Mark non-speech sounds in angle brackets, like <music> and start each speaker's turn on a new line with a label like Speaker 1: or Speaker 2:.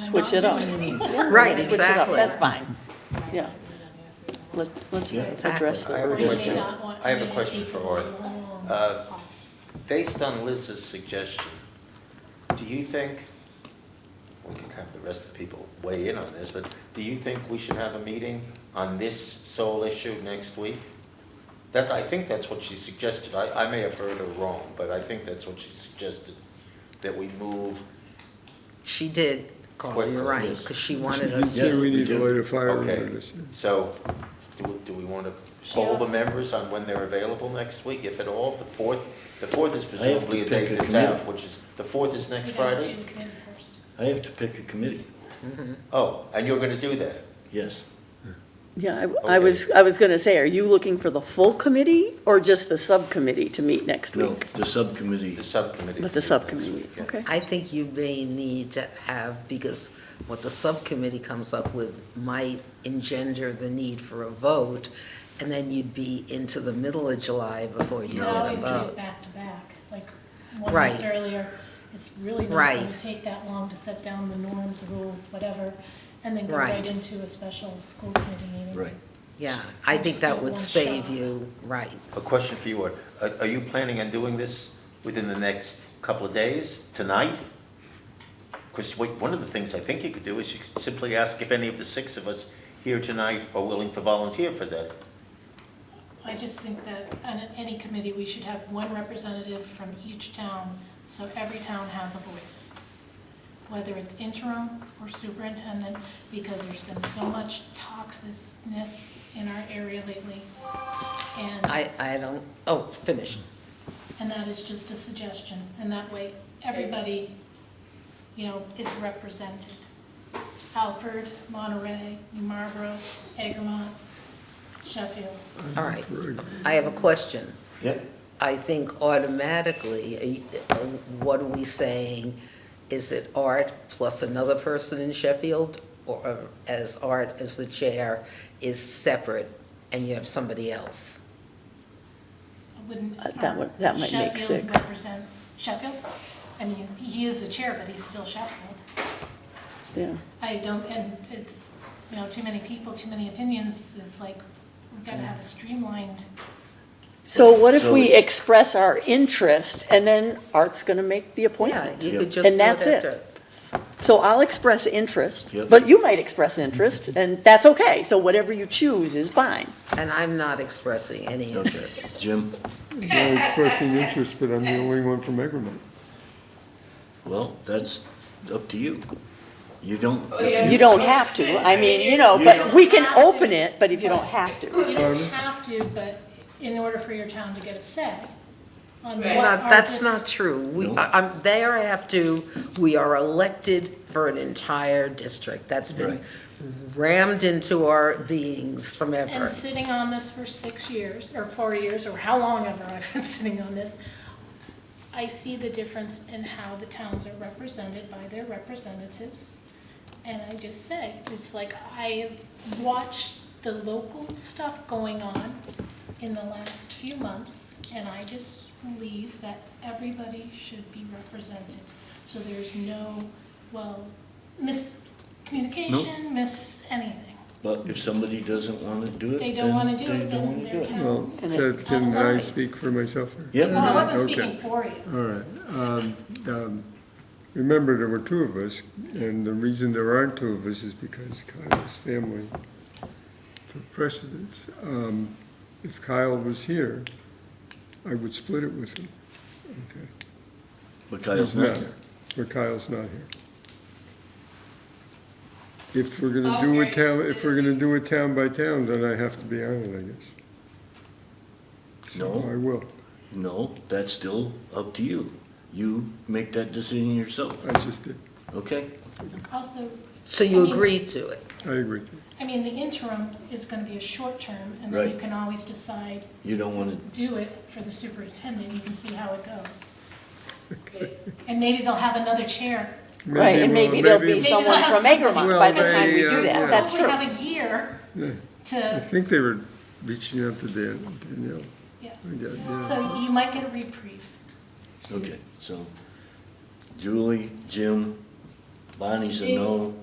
Speaker 1: Switch it up.
Speaker 2: Right,
Speaker 1: Switch it up,
Speaker 2: exactly.
Speaker 1: that's fine. Yeah. Let, let's address the
Speaker 3: I have a
Speaker 1: urgency.
Speaker 3: question, I have a question for Art. Uh, Based on Liz's suggestion, do you think, we can have the rest of the people weigh in on this, but do you think we should have a meeting on this sole issue next week? That, I think that's what she suggested, I, I may have heard her wrong, but I think that's what she suggested, that we move,
Speaker 2: She did call,
Speaker 3: What-
Speaker 2: you're right,
Speaker 3: yes.
Speaker 2: because she wanted
Speaker 4: <laughs> You
Speaker 2: us
Speaker 4: said we
Speaker 2: to.
Speaker 4: need to order fire
Speaker 3: okay.
Speaker 4: orders.
Speaker 3: So, do, we- do we want to
Speaker 5: She
Speaker 3: poll the
Speaker 5: also-
Speaker 3: members on when they're available next week, if at all? The fourth, the fourth is
Speaker 6: I have to
Speaker 3: presumably a date
Speaker 6: pick a
Speaker 3: that's
Speaker 6: committee.
Speaker 3: out, which is, the fourth is next
Speaker 5: We gotta
Speaker 3: Friday?
Speaker 5: do committee first.
Speaker 6: I have to pick a committee,
Speaker 3: Oh, and you're going to do that?
Speaker 6: yes.
Speaker 1: Yeah, I, I
Speaker 3: Okay.
Speaker 1: was, I was gonna say, are you looking for the full committee or just the subcommittee to meet next
Speaker 6: No,
Speaker 1: week?
Speaker 6: the subcommittee,
Speaker 3: The subcommittee.
Speaker 1: But the
Speaker 3: meets next
Speaker 1: subcommittee,
Speaker 3: week, yeah.
Speaker 1: okay.
Speaker 2: I think you may need to have, because what the subcommittee comes up with might engender the need for a vote, and then you'd be into the middle of July before you
Speaker 5: You
Speaker 2: get
Speaker 5: could
Speaker 2: a
Speaker 5: always do it
Speaker 2: vote.
Speaker 5: back to back, like one
Speaker 2: Right.
Speaker 5: month earlier. It's really not
Speaker 2: Right.
Speaker 5: gonna take that long to set down the norms, rules, whatever, and then go
Speaker 2: Right.
Speaker 5: right into a special school committee meeting.
Speaker 6: right.
Speaker 2: Yeah, I think that would
Speaker 5: Just
Speaker 2: save
Speaker 5: one shot.
Speaker 2: you, right.
Speaker 3: A question for you, Art. Are- Are you planning on doing this within the next couple of days, tonight? Because one of the things I think you could do is you could simply ask if any of the six of us here tonight are willing to volunteer for that.
Speaker 5: I just think that on any committee, we should have one representative from each town, so every town has a voice. Whether it's interim or superintendent, because there's been so much toxicness in our area lately. And,
Speaker 2: I, I don't, oh, finish.
Speaker 5: and that is just a suggestion, and that way, everybody, you know, is represented. Alfred, Monterey, New Marlboro, Egremont, Sheffield.
Speaker 2: All right. I have a question.
Speaker 6: Yep,
Speaker 2: I think automatically, eh, what are we saying? Is it Art plus another person in Sheffield? Or uh, as Art as the chair is separate and you have somebody else?
Speaker 5: I Wouldn't. um,
Speaker 1: Uh, that would- that might make
Speaker 5: Sheffield
Speaker 1: six.
Speaker 5: represent Sheffield? I mean, he is the chair, but he's still Sheffield.
Speaker 1: Yeah,
Speaker 5: I don't, and it's, you know, too many people, too many opinions, it's like, we've got to have a streamlined.
Speaker 1: so what if
Speaker 6: So
Speaker 1: we
Speaker 6: it's-
Speaker 1: express our interest and then Art's gonna make the
Speaker 2: Yeah,
Speaker 1: appointment?
Speaker 2: you
Speaker 6: Yep.
Speaker 2: could just do
Speaker 1: And
Speaker 2: it
Speaker 1: that's it.
Speaker 2: after.
Speaker 1: So I'll express interest,
Speaker 6: Yep.
Speaker 1: but you might express interest, and that's okay, so whatever you choose is fine.
Speaker 2: And I'm not expressing any
Speaker 6: okay.
Speaker 2: interest.
Speaker 6: Jim,
Speaker 4: They're expressing interest, but I'm the only one from Egremont.
Speaker 6: well, that's up to you. You don't,
Speaker 1: You don't have to, I mean, you know, but we can open it, but if you don't have to.
Speaker 5: You don't have to, but in order for your town to get a say on what
Speaker 2: Well,
Speaker 5: our
Speaker 2: that's
Speaker 5: dis-
Speaker 2: not true. We,
Speaker 6: No.
Speaker 2: I- I'm, they are after, we are elected for an entire district. That's been
Speaker 6: Right.
Speaker 2: rammed into our beings from ever.
Speaker 5: And sitting on this for six years, or four years, or how long ever I've been <laughs> sitting on this, I see the difference in how the towns are represented by their representatives. And I just say, it's like, I have watched the local stuff going on in the last few months, and I just believe that everybody should be represented. So there's no, well, miscommunication, miss anything.
Speaker 6: but if somebody doesn't want to do it,
Speaker 5: They
Speaker 6: then
Speaker 5: don't wanna do
Speaker 6: they
Speaker 5: it,
Speaker 6: don't
Speaker 5: then
Speaker 6: want to do
Speaker 5: they're
Speaker 6: it.
Speaker 4: Well,
Speaker 5: towns.
Speaker 4: so can I speak for myself? here?
Speaker 6: Yep.
Speaker 5: Well, I wasn't
Speaker 4: Okay.
Speaker 5: speaking for you.
Speaker 4: All right. Um, um, Remember, there were two of us, and the reason there aren't two of us is because Kyle's family took precedence. Um, If Kyle was here, I would split it with him. Okay.
Speaker 6: But Kyle's
Speaker 4: No,
Speaker 6: not here.
Speaker 4: But Kyle's not here. If we're gonna do it town, if we're gonna do it town by town, then I have to be on it, I guess. So
Speaker 6: No.
Speaker 4: I will.
Speaker 6: No, that's still up to you. You make that decision yourself,
Speaker 4: I just did.
Speaker 6: okay?
Speaker 5: Also,
Speaker 2: So
Speaker 5: I
Speaker 2: you
Speaker 5: mean-
Speaker 2: agreed to it?
Speaker 4: I agree.
Speaker 5: I mean, the interim is gonna be a short term, and then you
Speaker 6: Right.
Speaker 5: can always decide,
Speaker 6: You don't want to,
Speaker 5: do it for the superintendent, you can see how it goes. And maybe they'll have another chair.
Speaker 1: Right, and maybe there'll be
Speaker 4: maybe-
Speaker 5: some-
Speaker 1: someone from Egremont by the time we do
Speaker 4: Well,
Speaker 1: that,
Speaker 4: they, uh,
Speaker 1: Oh, that's
Speaker 5: Hopefully
Speaker 1: true.
Speaker 5: have a year
Speaker 4: I
Speaker 5: to,
Speaker 4: think they were reaching out to Dan, Danielle.
Speaker 5: yeah.
Speaker 4: I got- yeah.
Speaker 5: So you might get a reprieve.
Speaker 6: okay, so Julie, Jim, Bonnie's a no,